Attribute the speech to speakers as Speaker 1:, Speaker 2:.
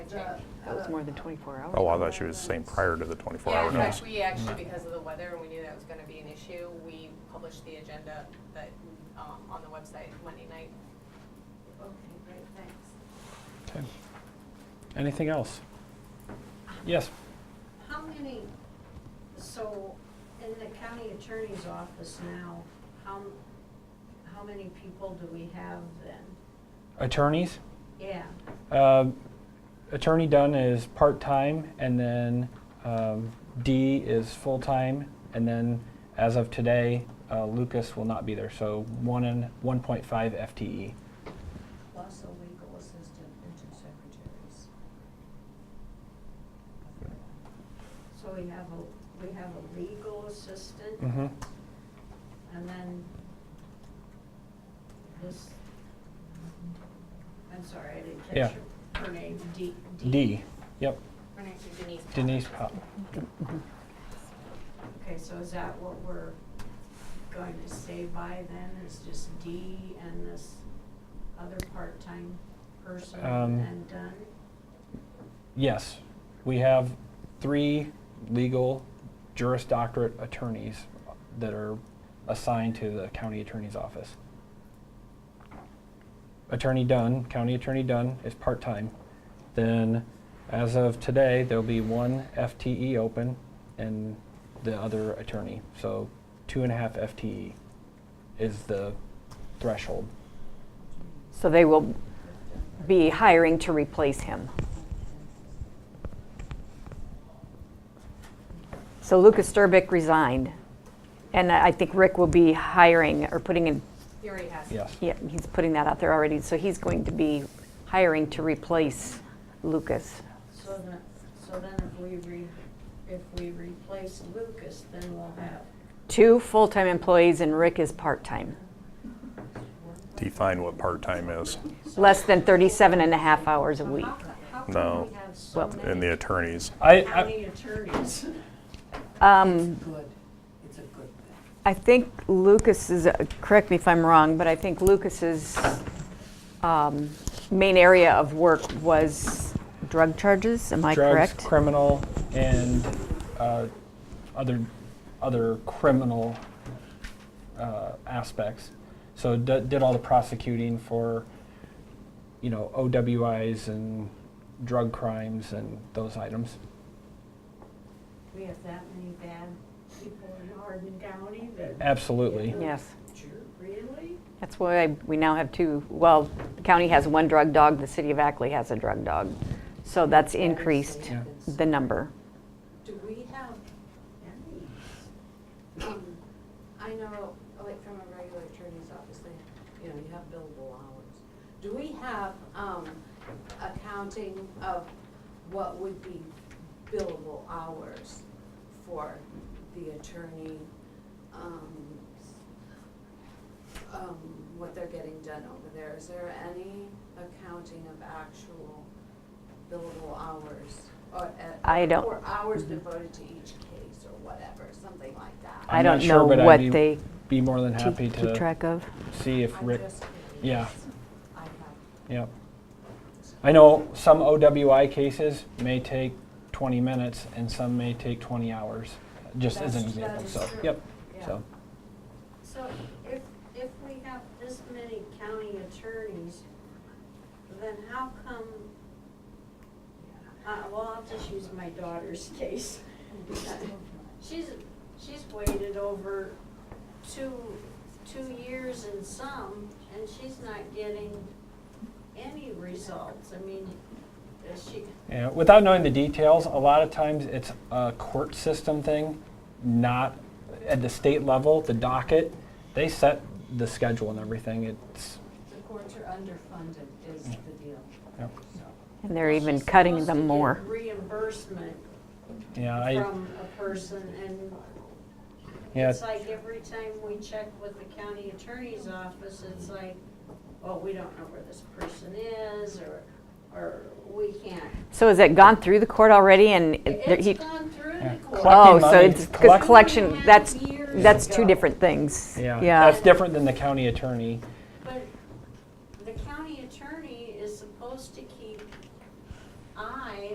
Speaker 1: That was more than 24 hours.
Speaker 2: Oh, I thought she was saying prior to the 24-hour
Speaker 3: Yeah, in
Speaker 2: notice.
Speaker 3: fact, we actually, because of the weather, and we knew that was gonna be an issue, we published the agenda that, um, on the website Monday night.
Speaker 4: Okay, great, thanks.
Speaker 5: Okay. Anything else? Yes,
Speaker 4: How many, so in the county attorney's office now, how, how many people do we have then?
Speaker 5: attorneys.
Speaker 4: Yeah,
Speaker 5: Um, Attorney Dunn is part-time, and then um, Dee is full-time, and then as of today, uh, Lucas will not be there, so one and 1.5 FTE.
Speaker 4: plus a legal assistant and two secretaries. So we have a, we have a legal assistant
Speaker 5: Mm-hmm.
Speaker 4: and then this, I'm sorry, I didn't
Speaker 5: Yeah.
Speaker 4: catch your, her name, D.
Speaker 5: Dee, yep,
Speaker 3: Her name is Denise. Powell.
Speaker 5: Denise uh, Pop.
Speaker 4: Okay, so is that what we're going to stay by then, is just D and this other part-time person
Speaker 5: Um,
Speaker 4: and done?
Speaker 5: Yes, we have three legal juris doctorate attorneys that are assigned to the county attorney's office. Attorney Dunn, County Attorney Dunn is part-time. Then, as of today, there'll be one FTE open and the other attorney. So two and a half FTE is the threshold.
Speaker 1: So they will be hiring to replace him. So Lucas Sturbick resigned, and I I think Rick will be hiring or putting in,
Speaker 3: He already has.
Speaker 5: Yes.
Speaker 1: yeah, he's putting that out there already. So he's going to be hiring to replace Lucas.
Speaker 4: So then, so then if we re, if we replace Lucas, then we'll have
Speaker 1: Two full-time employees and Rick is part-time,
Speaker 2: Define what part-time is
Speaker 1: less than 37 and a half hours a week.
Speaker 4: How co- How
Speaker 2: No.
Speaker 4: can we have so
Speaker 1: Well-
Speaker 2: in the
Speaker 4: many
Speaker 2: attorneys.
Speaker 5: I, I,
Speaker 4: county attorneys?
Speaker 1: Um,
Speaker 6: good, it's a good thing.
Speaker 1: I think Lucas is, uh, correct me if I'm wrong, but I think Lucas's um, main area of work was drug charges, am I
Speaker 5: drugs,
Speaker 1: correct?
Speaker 5: criminal, and uh, other other criminal uh, aspects. So d- did all the prosecuting for you know OWIs and drug crimes and those items.
Speaker 4: We have that many bad people in Hardin County that,
Speaker 5: Absolutely.
Speaker 1: Yes,
Speaker 4: really?
Speaker 1: that's why we now have two, well, the county has one drug dog, the city of Ackley has a drug dog. So that's increased
Speaker 5: Yeah.
Speaker 1: the number.
Speaker 4: Do we have any?
Speaker 7: Um, I know, like from a regular attorney's office, they, you know, you have billable hours. Do we have, um, accounting of what would be billable hours for the attorney? Um, um, what they're getting done over there, is there any accounting of actual billable hours? Or, uh,
Speaker 1: I don't-
Speaker 7: Or hours devoted to each case or whatever, something like that?
Speaker 1: I
Speaker 5: I'm not
Speaker 1: don't
Speaker 5: sure,
Speaker 1: know
Speaker 5: but I'd
Speaker 1: what
Speaker 5: be
Speaker 1: they
Speaker 5: Be more than
Speaker 1: keep
Speaker 5: happy
Speaker 1: keep
Speaker 5: to
Speaker 1: track of.
Speaker 5: see if
Speaker 7: I'm
Speaker 5: Rick.
Speaker 7: just
Speaker 5: Yeah.
Speaker 7: curious. I have,
Speaker 5: Yep. I know some OWI cases may take 20 minutes and some may take 20 hours, just as an
Speaker 7: That's- that
Speaker 5: example.
Speaker 7: is
Speaker 5: so,
Speaker 7: true.
Speaker 5: yep.
Speaker 7: Yeah.
Speaker 5: So,
Speaker 4: So if, if we have this many county attorneys, then how come, uh, well, I'll just use my daughter's case. She's, she's waited over two, two years and some, and she's not getting any results. I mean, is she,
Speaker 5: yeah, without knowing the details, a lot of times it's a court system thing, not at the state level, the docket. They set the schedule and everything. It's,
Speaker 7: the courts are underfunded is the deal,
Speaker 5: yep.
Speaker 7: so.
Speaker 1: And they're
Speaker 4: She's
Speaker 1: even cutting
Speaker 4: supposed to
Speaker 1: them
Speaker 4: get
Speaker 1: more.
Speaker 4: Reimbursement
Speaker 5: yeah, Uh, I,
Speaker 4: from a person and
Speaker 5: yeah,
Speaker 4: It's like every time we check with the county attorney's office, it's like, well, we don't know where this person is, or, or we can't.
Speaker 1: So has it gone through the court already and it- there- he?
Speaker 4: It's gone through
Speaker 5: Yeah.
Speaker 4: the court.
Speaker 1: Oh,
Speaker 5: Collecting
Speaker 1: so
Speaker 5: money-
Speaker 1: it's, because
Speaker 5: collect-
Speaker 1: collection, that's,
Speaker 4: Years
Speaker 1: that's two
Speaker 4: ago.
Speaker 1: different things.
Speaker 5: yeah,
Speaker 1: Yeah.
Speaker 5: That's different than the county attorney.